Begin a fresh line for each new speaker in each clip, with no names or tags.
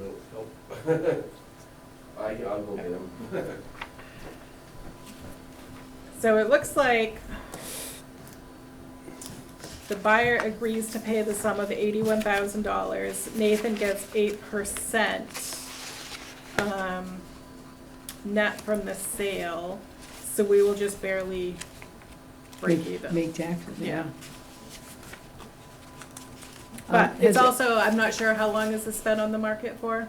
Nope. I, I'll go get them.
So it looks like the buyer agrees to pay the sum of eighty-one thousand dollars. Nathan gets eight percent, um, net from the sale, so we will just barely break
Make-
even.
Make taxes,
Yeah.
yeah.
But
Um, has
it's
it-
also, I'm not sure how long this has been on the market for.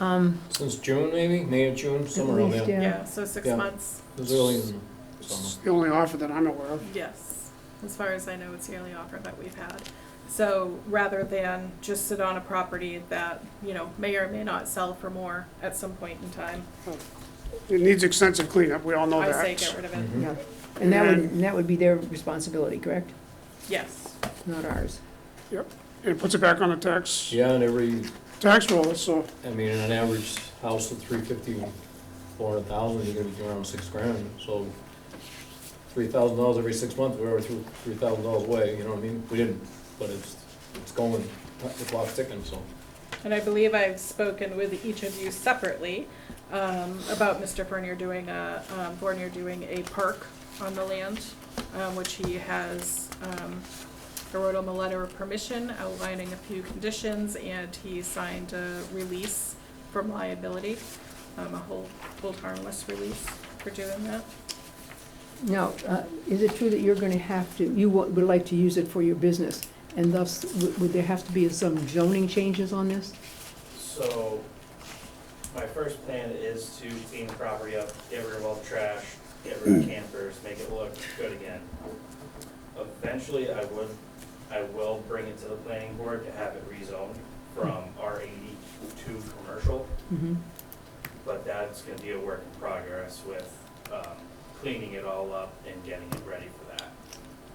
Um,
Since June, maybe, May or June, somewhere around
least,
there.
Yeah.
Yeah, so six
Yeah.
months,
It was early in the
It's
summer.
the only offer that I'm aware of.
yes. As far as I know, it's the only offer that we've had. So rather than just sit on a property that, you know, may or may not sell for more at some point in time,
It needs extensive cleanup, we all know
I
that.
say get rid of it.
Mhm.
yeah, and that would,
And-
and that would be their responsibility, correct?
Yes,
Not ours.
It puts it back on the tax,
Yeah, and every,
tax roll, so
I mean, an average house of three fifty, four hundred thousand, you're gonna be around six grand, so three thousand dollars every six months, we're over three thousand dollars away, you know what I mean? We didn't, but it's, it's going, the clock's ticking, so.
and I believe I've spoken with each of you separately um, about Mr. Bernier doing a, um, Bernier doing a park on the land, um, which he has, um, I wrote him a letter of permission outlining a few conditions, and he signed a release from liability, um, a whole, hold harmless release for doing that.
Now, uh, is it true that you're gonna have to, you wa- would like to use it for your business? And thus, would would there have to be some zoning changes on this?
So, my first plan is to clean the property up, get rid of all the trash, get rid of campers, make it look good again. Eventually, I would, I will bring it to the planning board to have it rezoned from
Hmm.
R eighty to commercial,
Mhm.
but that's gonna be a work in progress with, um, cleaning it all up and getting it ready for that.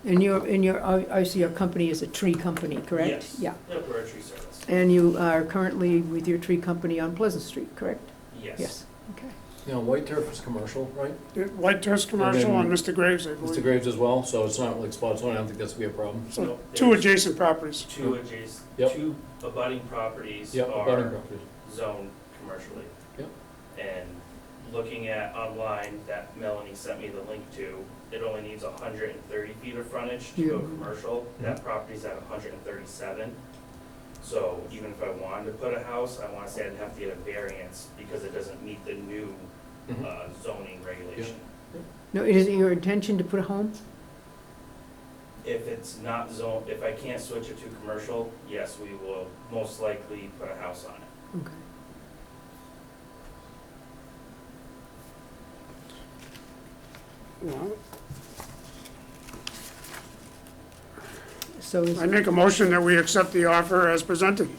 And your, and your, I I see your company is a tree company, correct?
Yes.
Yeah,
Yep, we're a tree service.
and you are currently with your tree company on Pleasant Street, correct?
Yes.
Okay.
You know, White Turf is commercial, right?
it- White Turf's commercial on Mr. Graves, I
Mr.
believe.
Graves as well, so it's not like spot zoning, I don't think that's gonna be a problem.
So
No,
two
there's
adjacent properties.
Two adjacent,
Yep.
two abutting properties
Yeah, abutting
are
property.
zoned commercially.
Yep.
And looking at online that Melanie sent me the link to, it only needs hundred and thirty feet of frontage to go
Yeah.
commercial. That property's at hundred and thirty-seven. So even if I wanted to put a house, I wanna say I'd have to get a variance because it doesn't meet the new
Mhm.
uh, zoning regulation.
No, is it your intention to put a home?
If it's not zoned, if I can't switch it to commercial, yes, we will most likely put a house on it.
Okay.
Well,
So, is-
I make a motion that we accept the offer as presented.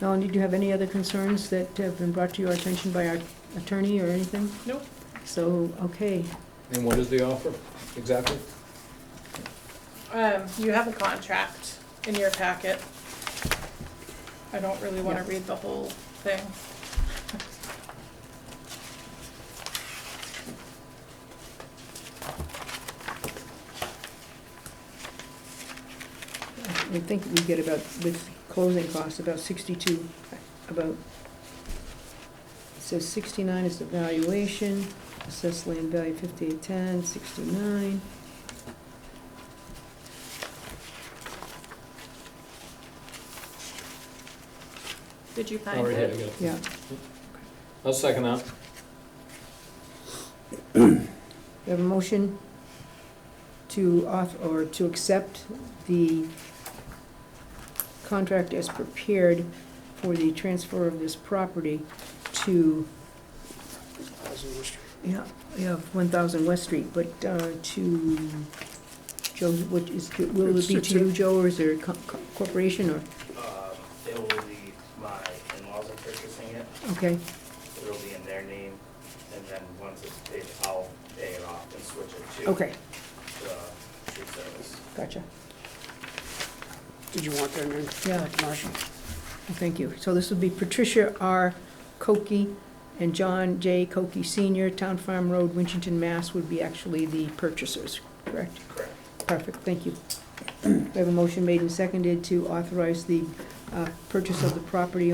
Melanie, did you have any other concerns that have been brought to your attention by our attorney or anything?
Nope.
So, okay,
And what is the offer, exactly?
Um, you have a contract in your packet. I don't really wanna
Yeah.
read the whole thing.
I think we get about, with closing costs, about sixty-two, about, it says sixty-nine is the valuation, assessed land value fifty-eight ten, sixty-nine.
Did you find
Oh, right here, I
it?
got it.
Yeah,
I'll second that.
we have a motion to off, or to accept the contract as prepared for the transfer of this property to Yeah, yeah, one thousand West Street, but uh, to, Joe, what is, will it be to you, Joe, or is there a co- co- corporation, or,
Um, it will be my in-laws are purchasing it,
okay,
it'll be in their name, and then once it's paid, I'll pay it off and switch it to
okay,
the tree service.
gotcha.
Did you want that name?
Yeah.
Marshall.
Thank you. So this would be Patricia R. Cokie and John J. Cokie Senior, Town Farm Road, Winchton, Mass. would be actually the purchasers, correct?
Correct.
Perfect, thank you. We have a motion made and seconded to authorize the uh, purchase of the property